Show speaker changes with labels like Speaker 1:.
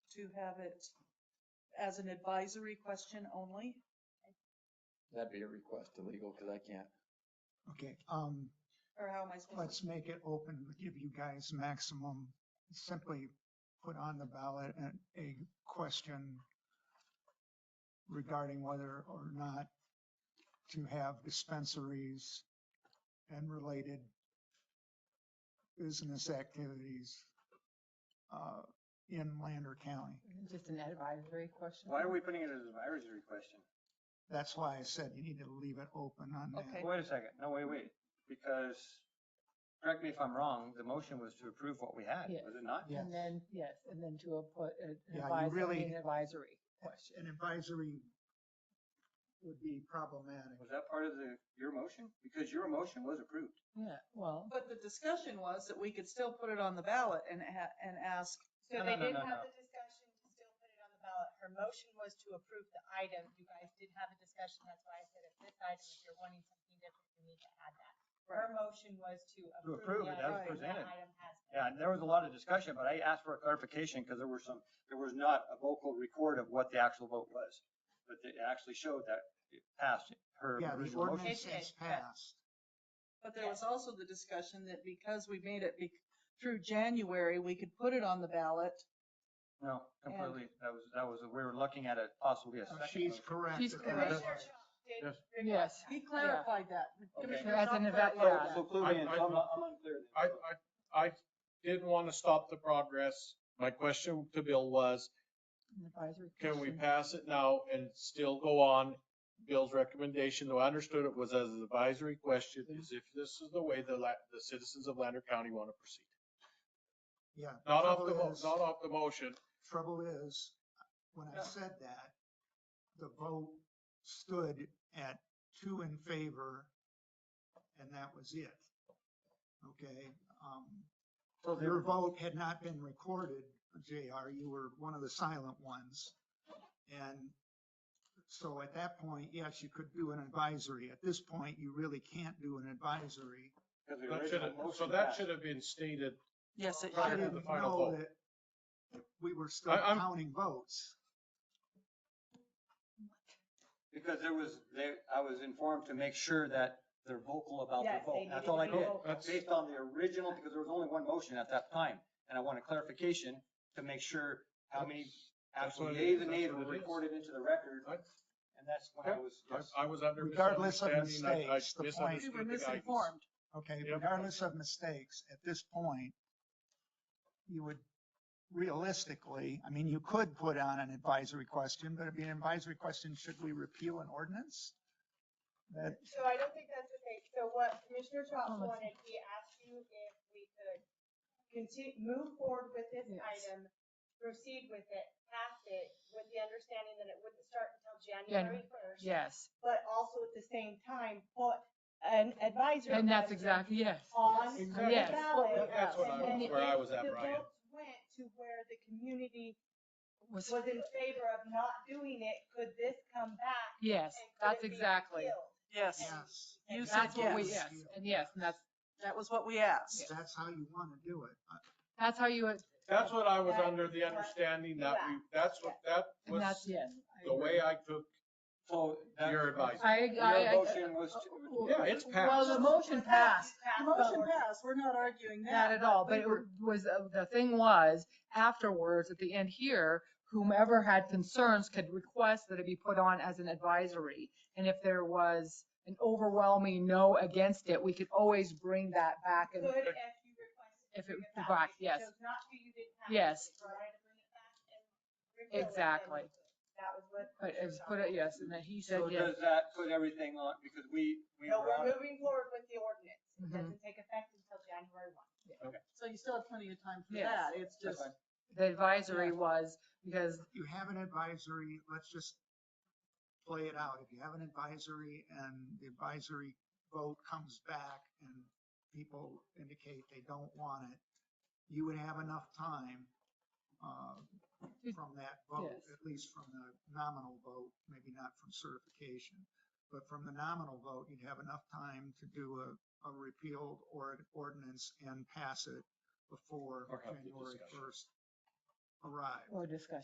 Speaker 1: to have it as an advisory question only.
Speaker 2: That'd be a request to legal, because I can't.
Speaker 3: Okay, um,
Speaker 1: Or how am I supposed
Speaker 3: let's
Speaker 1: to?
Speaker 3: make it open, give you guys maximum, simply put on the ballot and a question regarding whether or not to have dispensaries and related business activities uh, in Lander County.
Speaker 4: Just an advisory question?
Speaker 5: Why are we putting it as an advisory question?
Speaker 3: That's why I said you need to leave it open on that.
Speaker 1: Okay.
Speaker 5: Wait a second, no, wait, wait, because, correct me if I'm wrong, the motion was to approve what we had,
Speaker 4: Yes.
Speaker 5: was it not?
Speaker 3: Yes.
Speaker 4: And then, yes, and then to a- put an
Speaker 3: Yeah, you
Speaker 4: advisory,
Speaker 3: really-
Speaker 4: an advisory question.
Speaker 3: An advisory would be problematic.
Speaker 5: Was that part of the, your motion? Because your motion was approved.
Speaker 4: Yeah, well,
Speaker 1: But the discussion was that we could still put it on the ballot and ha- and ask,
Speaker 6: So
Speaker 5: No,
Speaker 6: they
Speaker 5: no, no,
Speaker 6: did
Speaker 5: no, no.
Speaker 6: have the discussion to still put it on the ballot. Her motion was to approve the item. You guys did have a discussion. That's why I said if this item, if you're wanting something different, you need to add that. Her motion was to
Speaker 5: approve
Speaker 6: approve the
Speaker 5: it
Speaker 1: as
Speaker 6: item.
Speaker 5: presented.
Speaker 6: That item has been.
Speaker 5: Yeah, and there was a lot of discussion, but I asked for a clarification because there were some, there was not a vocal record of what the actual vote was. But it actually showed that it passed her
Speaker 3: Yeah, the
Speaker 5: original motion.
Speaker 3: ordinance
Speaker 6: It
Speaker 3: has
Speaker 6: is, yeah.
Speaker 3: passed.
Speaker 1: but there was also the discussion that because we made it be- through January, we could put it on the ballot.
Speaker 5: No, completely, that was, that was, we were looking at it possibly a
Speaker 3: Uh,
Speaker 5: second.
Speaker 3: She's
Speaker 5: motion.
Speaker 3: correct.
Speaker 4: She's
Speaker 3: It was-
Speaker 5: correct.
Speaker 6: Commissioner Shaw did
Speaker 5: Yes.
Speaker 6: request
Speaker 4: Yes.
Speaker 6: that.
Speaker 1: He clarified that.
Speaker 5: Okay.
Speaker 1: Commissioner
Speaker 4: As an
Speaker 1: Tom
Speaker 4: eva-
Speaker 1: clarified
Speaker 4: yeah.
Speaker 1: that.
Speaker 5: So clue me in,
Speaker 7: I- I-
Speaker 5: so I'm not- I'm unclear then.
Speaker 7: I, I, I didn't want to stop the progress. My question to Bill was,
Speaker 4: an advisory.
Speaker 7: can we
Speaker 4: question.
Speaker 7: pass it now and still go on? Bill's recommendation, though I understood it was as an advisory question, is if this is the way the la, the citizens of Lander County want to proceed.
Speaker 3: Yeah.
Speaker 7: Not off the,
Speaker 3: trouble
Speaker 7: mo-
Speaker 3: is-
Speaker 7: not off the motion.
Speaker 3: Trouble is, when I
Speaker 5: Yeah.
Speaker 3: said that, the vote stood at two in favor, and that was it. Okay, um,
Speaker 5: So they
Speaker 3: your
Speaker 5: were-
Speaker 3: vote had not been recorded, JR, you were one of the silent ones. And so at that point, yes, you could do an advisory. At this point, you really can't do an advisory.
Speaker 5: 'cause the
Speaker 7: That
Speaker 5: original
Speaker 7: should have, so
Speaker 5: motion
Speaker 7: that
Speaker 5: passed.
Speaker 7: should have been stated.
Speaker 1: Yes, it
Speaker 3: I
Speaker 7: Prior to
Speaker 1: should have.
Speaker 3: didn't
Speaker 7: the final
Speaker 3: know
Speaker 7: vote.
Speaker 3: that We were still
Speaker 7: I- I'm-
Speaker 3: counting votes.
Speaker 5: Because there was, there, I was informed to make sure that they're vocal about their
Speaker 6: Yes, they
Speaker 5: vote. That's
Speaker 6: needed
Speaker 5: all
Speaker 6: to
Speaker 5: I
Speaker 6: be
Speaker 5: did.
Speaker 6: vocal.
Speaker 7: That's-
Speaker 5: Based on the original, because there was only one motion at that time, and I wanted clarification to make sure how many
Speaker 7: That's
Speaker 5: actual
Speaker 7: what it
Speaker 5: yays and
Speaker 7: is. That's
Speaker 5: nays
Speaker 7: what
Speaker 5: were
Speaker 7: it is.
Speaker 5: recorded into the record,
Speaker 7: I,
Speaker 5: and that's when I was,
Speaker 7: I-
Speaker 5: yes.
Speaker 7: I was under
Speaker 3: Regardless of
Speaker 7: misunderstanding. I- I
Speaker 3: mistakes, the point-
Speaker 1: We
Speaker 7: misunderstood
Speaker 1: were
Speaker 7: the guidance.
Speaker 1: misinformed.
Speaker 3: Okay,
Speaker 7: Yep.
Speaker 3: regardless of mistakes, at this point, you would realistically, I mean, you could put on an advisory question, but it'd be an advisory question, should we repeal an ordinance? That,
Speaker 6: So I don't think that's the case. So what Commissioner
Speaker 4: Oh,
Speaker 6: Chop
Speaker 4: let's-
Speaker 6: wanted, he asked you if we could continue, move forward with this
Speaker 4: Yes.
Speaker 6: item, proceed with it, pass it, with the understanding that it wouldn't start until January first.
Speaker 4: Yes,
Speaker 6: But also at the same time, put an advisory.
Speaker 4: and that's
Speaker 6: question
Speaker 4: exactly, yes.
Speaker 6: On the
Speaker 7: Exactly.
Speaker 4: Yes.
Speaker 6: ballot.
Speaker 7: That's what I-
Speaker 6: And then
Speaker 7: where I
Speaker 6: if
Speaker 7: was at,
Speaker 6: the
Speaker 7: Brian.
Speaker 6: votes Went to where the community
Speaker 4: Was,
Speaker 6: was in favor of not doing it, could this come back?
Speaker 4: yes,
Speaker 6: and could
Speaker 4: that's
Speaker 6: it be
Speaker 4: exactly.
Speaker 6: appealed?
Speaker 1: Yes,
Speaker 3: yes,
Speaker 1: you said
Speaker 4: That's what we,
Speaker 1: yes.
Speaker 4: yes, and yes, and that's,
Speaker 1: That was what we asked.
Speaker 3: that's how you want to do it. I-
Speaker 4: that's how you, would-
Speaker 7: That's what I was
Speaker 6: That
Speaker 7: under
Speaker 6: is
Speaker 7: the
Speaker 6: what-
Speaker 7: understanding that we, that's what, that
Speaker 4: and that's,
Speaker 7: was
Speaker 4: yes. I
Speaker 7: the way
Speaker 4: agree.
Speaker 7: I took
Speaker 5: So. that's-
Speaker 7: your advice.
Speaker 4: I, I, Oh,
Speaker 5: Your motion was to,
Speaker 4: I.
Speaker 7: Yeah, it's
Speaker 4: Well, the
Speaker 7: passed.
Speaker 4: motion passed,
Speaker 1: The
Speaker 6: but
Speaker 1: motion
Speaker 6: we're-
Speaker 1: passed, we're not arguing that.
Speaker 4: Not at all, but
Speaker 1: we
Speaker 4: it
Speaker 1: were-
Speaker 4: was, uh, the thing was, afterwards, at the end here, whomever had concerns could request that it be put on as an advisory. And if there was an overwhelming no against it, we could always bring that back
Speaker 6: Could
Speaker 4: and
Speaker 6: if you requested.
Speaker 4: If it
Speaker 6: bring
Speaker 4: was
Speaker 6: back,
Speaker 4: back,
Speaker 6: if you
Speaker 4: yes.
Speaker 6: chose not to, you didn't have to,
Speaker 4: Yes.
Speaker 6: you were allowed to bring it back and refill it, then
Speaker 4: Exactly.
Speaker 6: you could. That was what.
Speaker 4: put, it was put it, yes, and then he said
Speaker 5: so
Speaker 4: yes.
Speaker 5: does that put everything on, because we, we
Speaker 6: No,
Speaker 5: were on.
Speaker 6: we're moving forward with the ordinance. It
Speaker 4: Mhm.
Speaker 6: doesn't take effect until January one.
Speaker 1: So you still have plenty of time for
Speaker 4: Yes.
Speaker 1: that. It's
Speaker 5: That's
Speaker 1: just,
Speaker 5: fine.
Speaker 4: The advisory was because
Speaker 3: You have an advisory, let's just play it out. If you have an advisory and the advisory vote comes back and people indicate they don't want it, you would have enough time, uh, from that vote,
Speaker 4: Yes.
Speaker 3: at least from the nominal vote, maybe not from certification. But from the nominal vote, you'd have enough time to do a, a repealed or an ordinance and pass it before
Speaker 7: Or have the
Speaker 3: January
Speaker 7: discussion.
Speaker 3: first arrives.
Speaker 4: Or discussion.